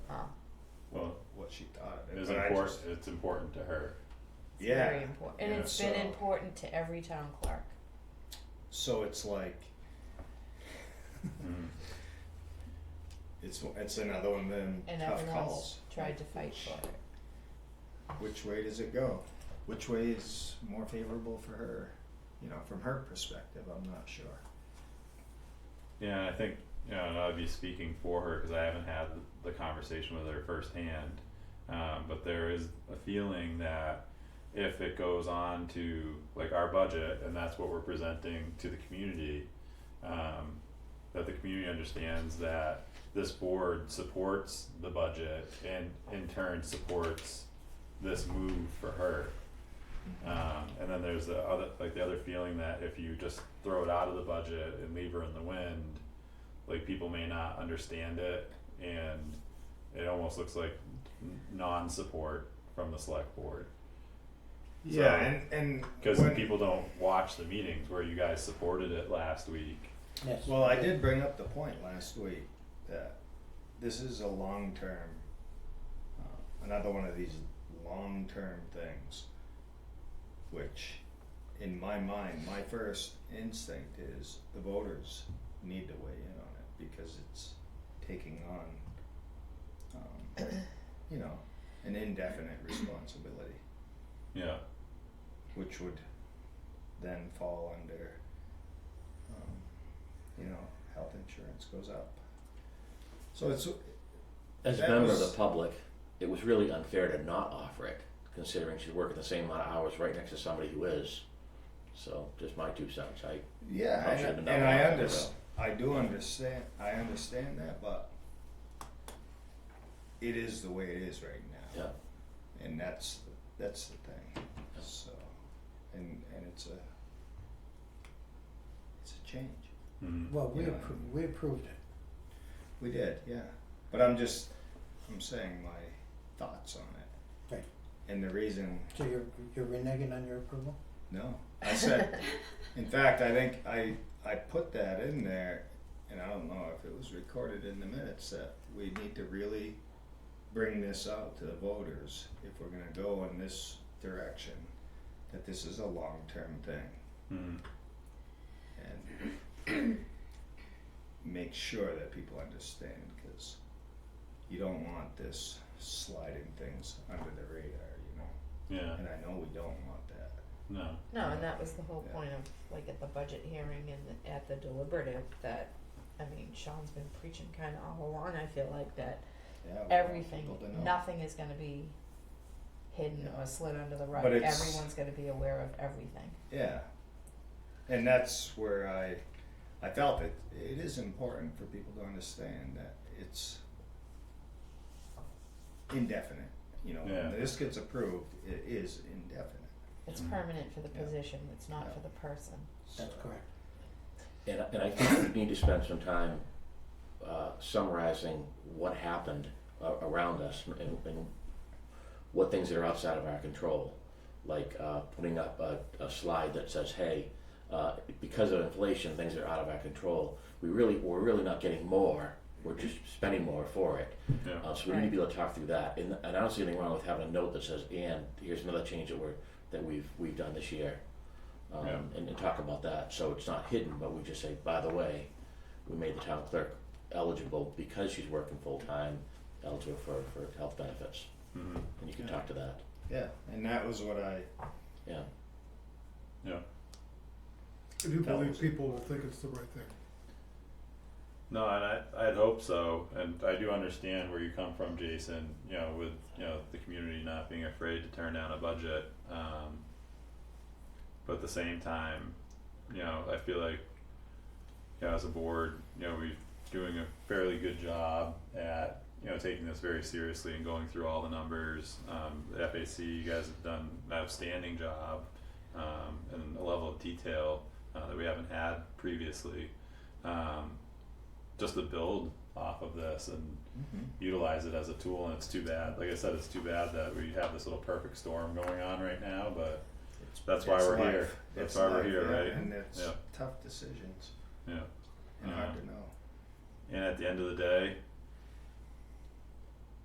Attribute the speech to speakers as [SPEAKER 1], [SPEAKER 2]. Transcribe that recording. [SPEAKER 1] is
[SPEAKER 2] but I
[SPEAKER 1] important,
[SPEAKER 2] just-
[SPEAKER 1] it's important to her.
[SPEAKER 3] It's
[SPEAKER 2] Yeah.
[SPEAKER 3] very important, and
[SPEAKER 2] Yeah,
[SPEAKER 3] it's been
[SPEAKER 2] so-
[SPEAKER 3] important to every town clerk.
[SPEAKER 2] So it's like Mm-hmm.
[SPEAKER 1] Mm.
[SPEAKER 2] it's it's another one of them
[SPEAKER 3] And
[SPEAKER 2] tough
[SPEAKER 3] everyone
[SPEAKER 2] calls.
[SPEAKER 3] else tried to fight for it.
[SPEAKER 2] Which way does it go? Which way is more favorable for her? You know, from her perspective, I'm not sure.
[SPEAKER 1] Yeah, and I think, you know, and I'd be speaking for her, cause I haven't had the conversation with her firsthand. Um, but there is a feeling that if it goes on to like our budget and that's what we're presenting to the community, um, that the community understands that this board supports the budget and in turn supports this move for her. Um, and then there's the other, like the other feeling that if you just throw it out of the budget and leave her in the wind, like people may not understand it and it almost looks like n- non-support from the select board.
[SPEAKER 2] Yeah, and and
[SPEAKER 1] Cause
[SPEAKER 2] when-
[SPEAKER 1] people don't watch the meetings where you guys supported it last week.
[SPEAKER 4] Yes.
[SPEAKER 2] Well, I did bring up the point last week that this is a long term, uh, another one of these long term things, which in my mind, my first instinct is the voters need to weigh in on it because it's taking on, um, you know, an indefinite responsibility,
[SPEAKER 1] Yeah,
[SPEAKER 2] which would then fall under, um, you know, health insurance goes up. So it's,
[SPEAKER 4] As a
[SPEAKER 2] That
[SPEAKER 4] member of
[SPEAKER 2] was-
[SPEAKER 4] the public, it was really unfair to not offer it, considering she's working the same amount of hours right next to somebody who is. So, just my two cents. I
[SPEAKER 2] yeah,
[SPEAKER 4] Probably
[SPEAKER 2] I-
[SPEAKER 4] should've
[SPEAKER 2] and,
[SPEAKER 4] done
[SPEAKER 2] I
[SPEAKER 4] that.
[SPEAKER 2] under, I do understand, I understand that, but it is the way it is right now,
[SPEAKER 4] yeah.
[SPEAKER 2] and that's, that's the thing, so, and, and it's a, it's a change.
[SPEAKER 1] Mhm.
[SPEAKER 5] Well, we
[SPEAKER 2] Yeah.
[SPEAKER 5] approved, we approved it.
[SPEAKER 2] We did, yeah, but I'm just, I'm saying my thoughts on it.
[SPEAKER 5] Right.
[SPEAKER 2] And the reason
[SPEAKER 5] So you're, you're reneging on your approval?
[SPEAKER 2] No, I said. in fact, I think I I put that in there, and I don't know if it was recorded in the minutes that we need to really bring this out to the voters if we're going to go in this direction. That this is a long-term thing,
[SPEAKER 1] Mhm.
[SPEAKER 2] and make sure that people understand because you don't want this sliding things under the radar, you know.
[SPEAKER 1] yeah,
[SPEAKER 2] And I know we don't want that.
[SPEAKER 1] no.
[SPEAKER 3] No, and that was the whole
[SPEAKER 2] Yeah.
[SPEAKER 3] point of, like, at the budget hearing and the- at the deliberative, that, I mean, Sean's been preaching kinda all along, I feel like, that
[SPEAKER 2] Yeah, we want
[SPEAKER 3] everything,
[SPEAKER 2] people to know.
[SPEAKER 3] nothing is gonna be hidden
[SPEAKER 2] Yeah.
[SPEAKER 3] or slid under the rug,
[SPEAKER 2] But it's-
[SPEAKER 3] everyone's gonna be aware of everything.
[SPEAKER 2] Yeah. And that's where I I felt it it is important for people to understand that it's indefinite. You know,
[SPEAKER 1] Yeah.
[SPEAKER 2] when this gets approved, it is indefinite.
[SPEAKER 3] It's
[SPEAKER 1] Mhm.
[SPEAKER 3] permanent for the
[SPEAKER 2] Mm. Yeah.
[SPEAKER 3] position, it's not
[SPEAKER 2] Yeah.
[SPEAKER 3] for the person.
[SPEAKER 5] That's
[SPEAKER 2] So-
[SPEAKER 5] correct.
[SPEAKER 4] And, and I think we need to spend some time uh, summarizing what happened uh, around us and, and what things that are outside of our control, like uh, putting up a, a slide that says, "Hey, uh, because of inflation, things are out of our control. We really, we're really not getting more. We're just spending more for it."
[SPEAKER 1] Yeah.
[SPEAKER 4] Uh, so we need to be able to talk through that. And, and I don't see anything wrong with having a note that says, "And here's another change that we're that we've we've done this year." um,
[SPEAKER 1] Yeah.
[SPEAKER 4] and, and talk about that. So it's not hidden, but we just say, by the way, we made the town clerk eligible because she's working full time, eligible for, for health benefits.
[SPEAKER 1] Mhm.
[SPEAKER 4] And you can talk to that.
[SPEAKER 2] Yeah. And that was what I
[SPEAKER 4] Yeah.
[SPEAKER 6] I do
[SPEAKER 2] That
[SPEAKER 6] believe
[SPEAKER 2] was-
[SPEAKER 6] people will think it's the right thing.
[SPEAKER 1] No, and I I'd hope so, and I do understand where you come from, Jason. You know, with you know the community not being afraid to turn down a budget, um, but at the same time, you know, I feel like you know, as a board, you know, we're doing a fairly good job at you know taking this very seriously and going through all the numbers. Um, the FAC, you guys have done an outstanding job, um, and a level of detail uh, that we haven't had previously. Um, just to build off of this and
[SPEAKER 2] mm-hmm.
[SPEAKER 1] utilize it as a tool and it's too bad like i said it's too bad that we have this little perfect storm going on right now but
[SPEAKER 2] it's,
[SPEAKER 1] That's why
[SPEAKER 2] it's
[SPEAKER 1] we're
[SPEAKER 2] life.
[SPEAKER 1] here. That's
[SPEAKER 2] It's
[SPEAKER 1] why we're
[SPEAKER 2] life,
[SPEAKER 1] here,
[SPEAKER 2] yeah,
[SPEAKER 1] right?
[SPEAKER 2] And it's
[SPEAKER 1] Yeah.
[SPEAKER 2] tough decisions
[SPEAKER 1] yeah
[SPEAKER 2] and
[SPEAKER 1] Uh-huh.
[SPEAKER 2] hard to know.
[SPEAKER 1] and at the end of the day